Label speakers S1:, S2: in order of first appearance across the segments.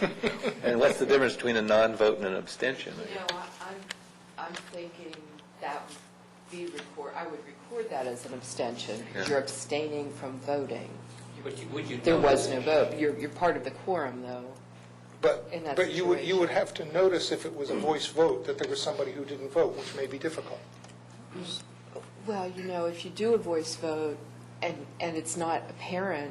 S1: And what's the difference between a non-vote and an abstention?
S2: You know, I- I'm, I'm thinking that would be record, I would record that as an abstention.
S1: Yeah.
S2: You're abstaining from voting.
S3: But you- would you
S2: There was
S3: notice-
S2: no vote. You're, you're part of the quorum, though.
S4: But,
S2: In that
S4: but you would, you
S2: situation. Mm.
S4: would have to notice if it was a voice vote, that there was somebody who didn't vote, which may be difficult.
S2: Well, you know, if you do a voice vote and, and it's not apparent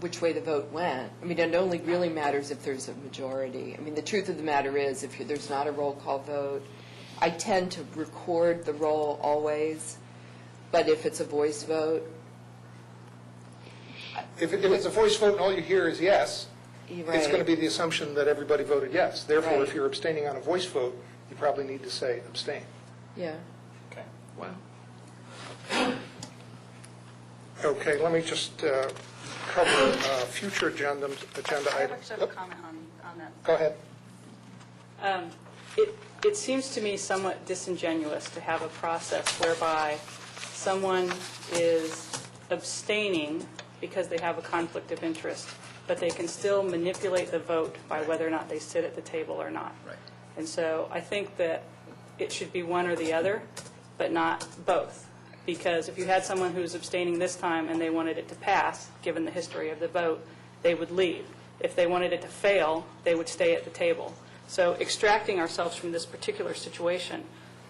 S2: which way the vote went, I mean, it only really matters if there's a majority. I mean, the truth of the matter is, if you- there's not a roll call vote, I tend to record the roll always, but if it's a voice vote,
S4: If it- if it's a voice vote and all you hear is yes,
S2: you're right.
S4: it's going to be the assumption that everybody voted yes. Therefore, if
S2: Right.
S4: you're abstaining on a voice vote, you probably need to say abstain.
S2: Yeah.
S3: Okay.
S1: Wow.
S4: Okay, let me just uh, cover uh, future agenda agenda
S5: I
S4: items.
S5: actually have a comment on, on that.
S4: Go ahead.
S6: Um, It, it seems to me somewhat disingenuous to have a process whereby someone is abstaining because they have a conflict of interest, but they can still manipulate the vote by whether or not they sit at the table or not.
S1: Right.
S6: And so I think that it should be one or the other, but not both. Because if you had someone who's abstaining this time and they wanted it to pass, given the history of the vote, they would leave. If they wanted it to fail, they would stay at the table. So extracting ourselves from this particular situation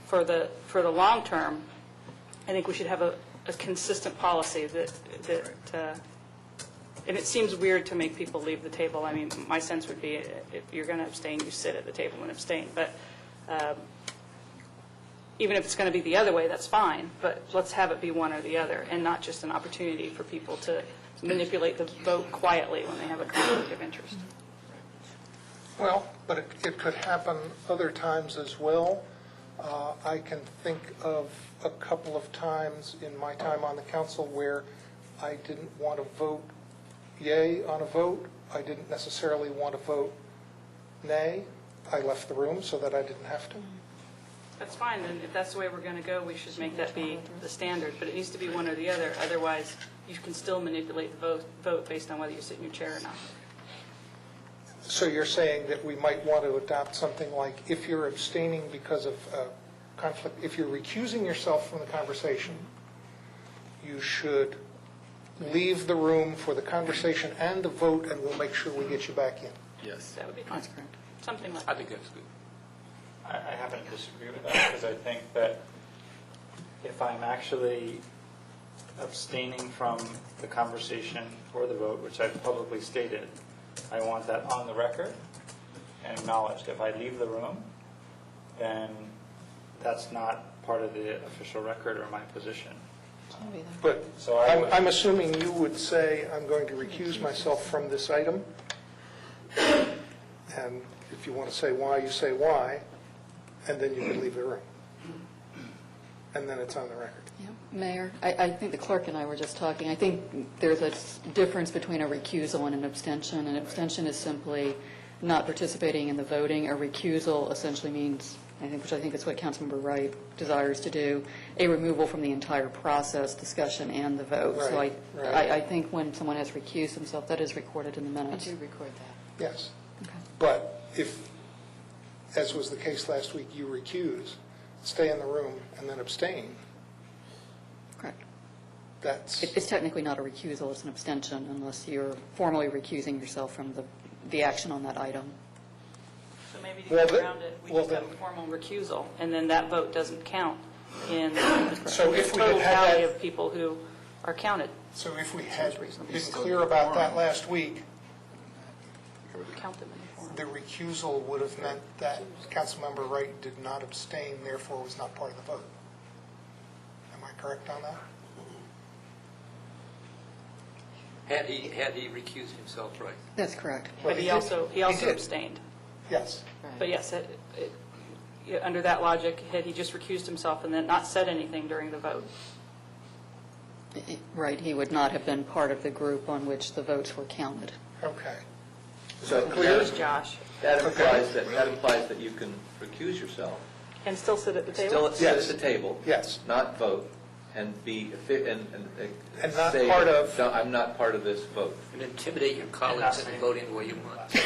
S6: for the, for the long term, I think we should have a, a consistent policy that, that, uh, and it seems weird to make people leave the table. I mean, my sense would be uh, if you're going to abstain, you sit at the table and abstain. But um, even if it's going to be the other way, that's fine, but let's have it be one or the other and not just an opportunity for people to manipulate the vote quietly when they have a conflict of interest.
S4: Well, but it, it could happen other times as well. Uh, I can think of a couple of times in my time on the council where I didn't want to vote yay on a vote. I didn't necessarily want to vote nay. I left the room so that I didn't have to.
S6: That's fine, then if that's the way we're going to go, we should make that be the standard, but it needs to be one or the other. Otherwise, you can still manipulate the vote, vote based on whether you sit in your chair or not.
S4: So you're saying that we might want to adopt something like, if you're abstaining because of uh, conflict, if you're recusing yourself from the conversation, you should leave the room for the conversation and the vote, and we'll make sure we get you back in.
S1: Yes.
S6: That would be fine. Something like that.
S3: I think that's good.
S7: I I happen to disagree with that because I think that if I'm actually abstaining from the conversation or the vote, which I've publicly stated, I want that on the record and acknowledged. If I leave the room, then that's not part of the official record or my position.
S4: But
S7: So I
S4: I'm
S7: would-
S4: I'm assuming you would say, I'm going to recuse myself from this item, and if you want to say why, you say why, and then you can leave the room. And then it's on the record.
S8: Yeah, Mayor, I, I think the clerk and I were just talking, I think there's a s- difference between a recusal and an abstention. An abstention is simply not participating in the voting. A recusal essentially means, I think, which I think is what Councilmember Wright desires to do, a removal from the entire process, discussion, and the vote. So I,
S4: Right, right.
S8: I I think when someone has recused himself, that is recorded in the
S2: I
S8: minutes.
S2: do record that.
S4: Yes. But if, as was the case last week, you recuse, stay in the room, and then abstain,
S8: Correct.
S4: that's,
S8: It- It's technically not a recusal, it's an abstention unless you're formally recusing yourself from the, the action on that item.
S6: So maybe to
S4: Well,
S6: get
S4: the-
S6: around it, we
S4: well,
S6: just have
S4: then-
S6: a formal recusal, and then that vote doesn't count in the
S4: So if we
S6: total
S4: had had
S6: tally
S4: that-
S6: of people who are counted.
S4: so if we had
S6: reasonable.
S4: been clear about that last week,
S6: Count them in the form.
S4: the recusal would have meant that Councilmember Wright did not abstain, therefore was not part of the vote. Am I correct on that?
S3: Had he, had he recused himself, right?
S8: That's correct.
S4: Well,
S6: But he
S4: did-
S6: also, he also
S4: did.
S6: abstained.
S4: Yes.
S6: But yes, it- it- yeah, under that logic, had he just recused himself and then not said anything during the vote?
S8: Right, he would not have been part of the group on which the votes were counted.
S4: Okay.
S1: So
S6: It was
S1: that
S6: Josh,
S1: that implies that, that implies that you can recuse yourself,
S6: and still sit at the
S1: still
S6: table?
S1: sit at the table.
S4: Yes.
S1: Not vote, and be, affi- and, and.
S4: And not
S1: say,
S4: part of-
S1: "No, I'm not part of this vote.
S3: And intimidate your colleagues into voting the way you want.